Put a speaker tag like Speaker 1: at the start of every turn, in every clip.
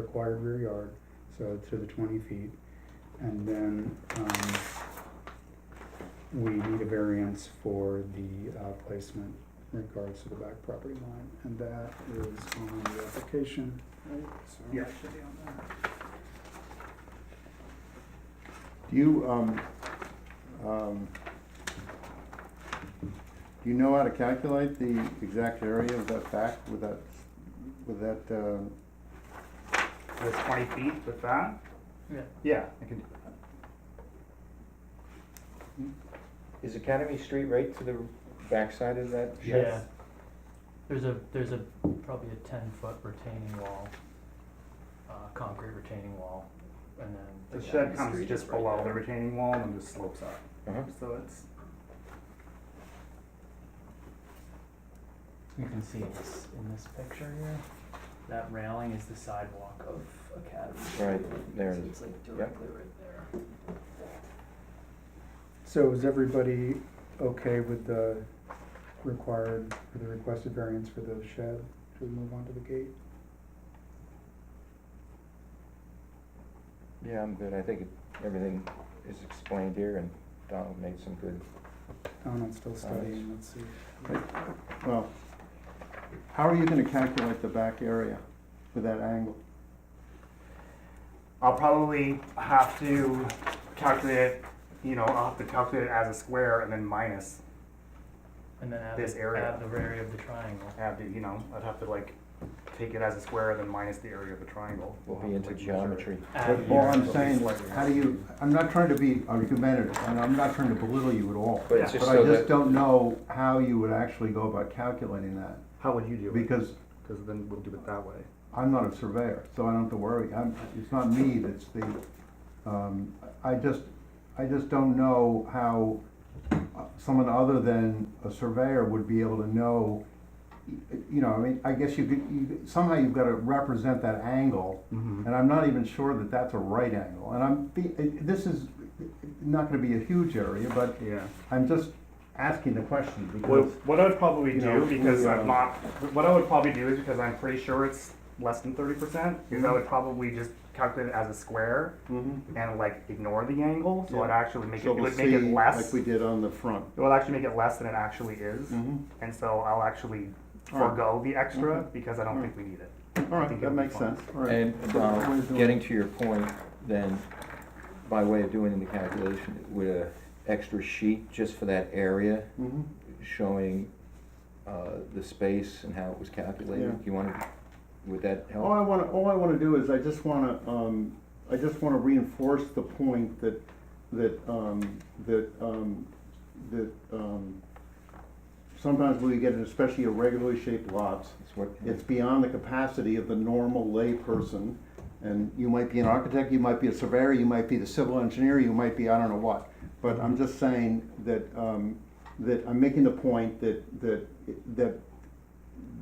Speaker 1: required rear yard, so to the twenty feet. And then, um, we need a variance for the uh, placement in regards to the back property line, and that is on the application, right? So it
Speaker 2: Yeah.
Speaker 1: should be on there.
Speaker 2: Do you, um, um, do you know how to calculate the exact area of that back with that, with that, um,
Speaker 3: That's twenty feet with that?
Speaker 4: Yeah.
Speaker 3: Yeah, I can do that.
Speaker 5: Is Academy Street right to the backside of that? shed?
Speaker 4: Yeah. There's a, there's a, probably a ten foot retaining wall, uh, concrete retaining wall, and then.
Speaker 3: The shed
Speaker 5: Academy
Speaker 3: comes
Speaker 5: Street
Speaker 3: just
Speaker 5: is right
Speaker 3: below the
Speaker 5: there.
Speaker 3: retaining wall and just slopes up,
Speaker 5: Uh-huh.
Speaker 3: so it's,
Speaker 4: You can see in this, in this picture here, that railing is the sidewalk of Academy.
Speaker 5: Right, there it
Speaker 4: So
Speaker 5: is.
Speaker 4: it's like
Speaker 5: directly
Speaker 4: right there.
Speaker 1: So is everybody okay with the required, or the requested variance for the shed? Should we move on to the gate?
Speaker 5: Yeah, I'm good. I think it- everything is explained here and Donald made some good,
Speaker 1: Donald's still studying, let's see.
Speaker 2: well, how are you gonna calculate the back area with that angle?
Speaker 3: I'll probably have to calculate, it, you know, I'll have to calculate it as a square and then minus,
Speaker 4: And then add,
Speaker 3: This
Speaker 4: the-
Speaker 3: area.
Speaker 4: add the area of the triangle.
Speaker 3: have to, you know, I'd have to like take it as a square and then minus the area of the triangle.
Speaker 5: will
Speaker 3: I'll
Speaker 5: be
Speaker 3: have to,
Speaker 5: into
Speaker 3: like, measure it.
Speaker 5: geometry.
Speaker 4: Add
Speaker 2: All
Speaker 4: the-
Speaker 3: Yeah, it'll
Speaker 2: I'm
Speaker 3: be
Speaker 2: saying,
Speaker 3: slightly
Speaker 2: how do you, I'm not trying to be argumentative, and I'm not trying to belittle you at all,
Speaker 5: But it's
Speaker 2: but
Speaker 5: just
Speaker 2: I
Speaker 5: so
Speaker 2: just
Speaker 5: that,
Speaker 2: don't know how you would actually go about calculating that,
Speaker 3: How would you do it?
Speaker 2: because
Speaker 3: Because then we'll do it that way.
Speaker 2: I'm not a surveyor, so I don't have to worry. I'm, it's not me that's the, um, I just, I just don't know how uh, someone other than a surveyor would be able to know, y- you know, I mean, I guess you could, you, somehow you've gotta represent that angle,
Speaker 3: Mm-hmm.
Speaker 2: and I'm not even sure that that's a right angle. And I'm, be- it- this is not gonna be a huge area, but
Speaker 3: Yeah.
Speaker 2: I'm just asking the question
Speaker 3: What,
Speaker 2: because,
Speaker 3: what I would probably
Speaker 2: You
Speaker 3: do,
Speaker 2: know,
Speaker 3: because
Speaker 2: we,
Speaker 3: I'm
Speaker 2: um,
Speaker 3: not, what I would probably do is because I'm pretty sure it's less than 30%, percent is I would probably just calculate it as a square and like ignore the angle. mm-hmm. So I'd
Speaker 2: Yeah.
Speaker 3: actually make it, it would make it less.
Speaker 2: did on the front.
Speaker 3: it will actually make it less than it actually is. And so I'll actually
Speaker 2: All right.
Speaker 3: forego the extra
Speaker 2: Okay.
Speaker 3: because I don't
Speaker 2: All
Speaker 3: think we need it.
Speaker 2: All
Speaker 3: I
Speaker 2: right,
Speaker 3: think
Speaker 2: that
Speaker 3: it'll be
Speaker 2: makes
Speaker 3: fine.
Speaker 2: sense, all right.
Speaker 5: and
Speaker 2: So what we're
Speaker 5: uh,
Speaker 2: doing-
Speaker 5: getting to your point, then, by way of doing the calculation, with a extra sheet just for that area,
Speaker 2: Mhm.
Speaker 5: showing uh, the space and how it was calculated,
Speaker 2: Yeah.
Speaker 5: you want to, would that help?
Speaker 2: All I wanna, all I wanna do is I just wanna, um, I just wanna reinforce the point that, that, um, that, um, that, um, sometimes when we get, especially irregularly shaped lots,
Speaker 5: It's what-
Speaker 2: it's beyond the capacity of the normal layperson. And you might be an architect, you might be a surveyor, you might be the civil engineer, you might be, I don't know what. But I'm just saying that, um, that I'm making the point that, that, that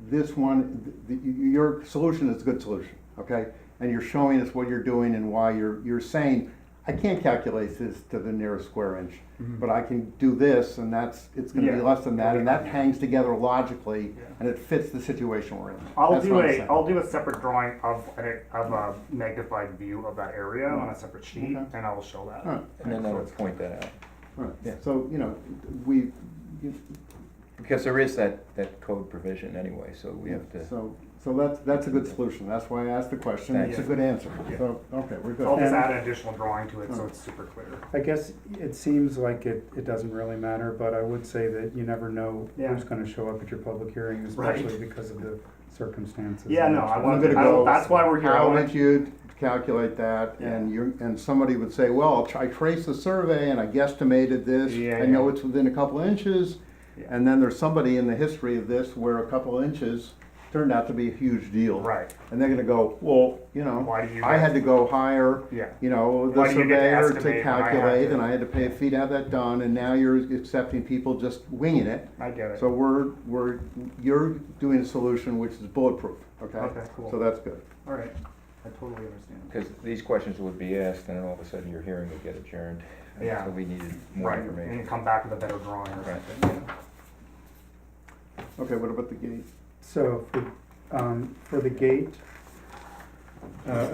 Speaker 2: this one, th- th- your solution is a good solution, okay? And you're showing us what you're doing and why you're, you're saying, I can't calculate this to the nearest square inch, but I can do this and that's, it's gonna be
Speaker 3: Mm-hmm. Yeah.
Speaker 2: less than that, and that hangs together logically
Speaker 3: Yeah.
Speaker 2: and it fits the situation we're in.
Speaker 3: I'll
Speaker 2: That's
Speaker 3: do
Speaker 2: what I'm
Speaker 3: a
Speaker 2: saying.
Speaker 3: will do a separate drawing of an, of a magnified view of that area on a separate sheet,
Speaker 2: Mm-hmm. Okay.
Speaker 3: and I will show that.
Speaker 2: All right,
Speaker 5: And then
Speaker 3: So
Speaker 5: that'll
Speaker 3: it's-
Speaker 5: point that out.
Speaker 2: all right.
Speaker 5: Yeah.
Speaker 2: So, you know, we, you-
Speaker 5: Because there is that, that code provision anyway, so we have to,
Speaker 2: so, so that's, that's a good solution. That's why I asked the question.
Speaker 5: Thank
Speaker 2: It's a
Speaker 3: you.
Speaker 2: good answer.
Speaker 3: Yeah. Oh,
Speaker 2: So, okay, we're
Speaker 3: So I'll
Speaker 2: good.
Speaker 3: just
Speaker 1: And-
Speaker 3: add an additional drawing to it so
Speaker 2: Mm.
Speaker 3: it's super clear.
Speaker 1: I guess it seems like it, it doesn't really matter, but I would say that you never know
Speaker 3: Yeah.
Speaker 1: who's gonna show up at your public hearing,
Speaker 3: Right.
Speaker 1: especially because of the circumstances.
Speaker 3: Yeah,
Speaker 1: in
Speaker 3: no,
Speaker 1: which-
Speaker 3: I
Speaker 2: I'm
Speaker 3: want
Speaker 2: gonna
Speaker 3: to.
Speaker 2: go.
Speaker 3: That's why we're here. I
Speaker 2: How
Speaker 3: wanna-
Speaker 2: did you calculate that? And you, and somebody would say, well, I traced the survey and I guesstimated this.
Speaker 3: Yeah,
Speaker 2: I know
Speaker 3: yeah.
Speaker 2: it's within a couple inches.
Speaker 3: Yeah.
Speaker 2: And then there's somebody in the history of this where a couple inches turned out to be a huge deal.
Speaker 3: Right.
Speaker 2: And they're gonna go, well, you know,
Speaker 3: Why do you?
Speaker 2: I had to go higher.
Speaker 3: Yeah.
Speaker 2: you know, the
Speaker 3: Why do you get to
Speaker 2: surveyor
Speaker 3: estimate
Speaker 2: to
Speaker 3: when I have
Speaker 2: calculate,
Speaker 3: to-
Speaker 2: and I had to pay a fee to have that done, and now you're accepting people just winging it.
Speaker 3: I get it.
Speaker 2: So we're, we're, you're doing a solution which is bulletproof, okay?
Speaker 3: Okay, cool.
Speaker 2: So that's good.
Speaker 3: All right. I totally understand.
Speaker 5: because these questions would be asked, and then all of a sudden your hearing would get adjourned.
Speaker 3: Yeah.
Speaker 5: So we needed more
Speaker 3: Right.
Speaker 5: information.
Speaker 3: And come back with a better drawing or
Speaker 5: Right.
Speaker 3: something. yeah.
Speaker 2: Okay, what about the gate?
Speaker 1: So, for, um, for the gate, Uh,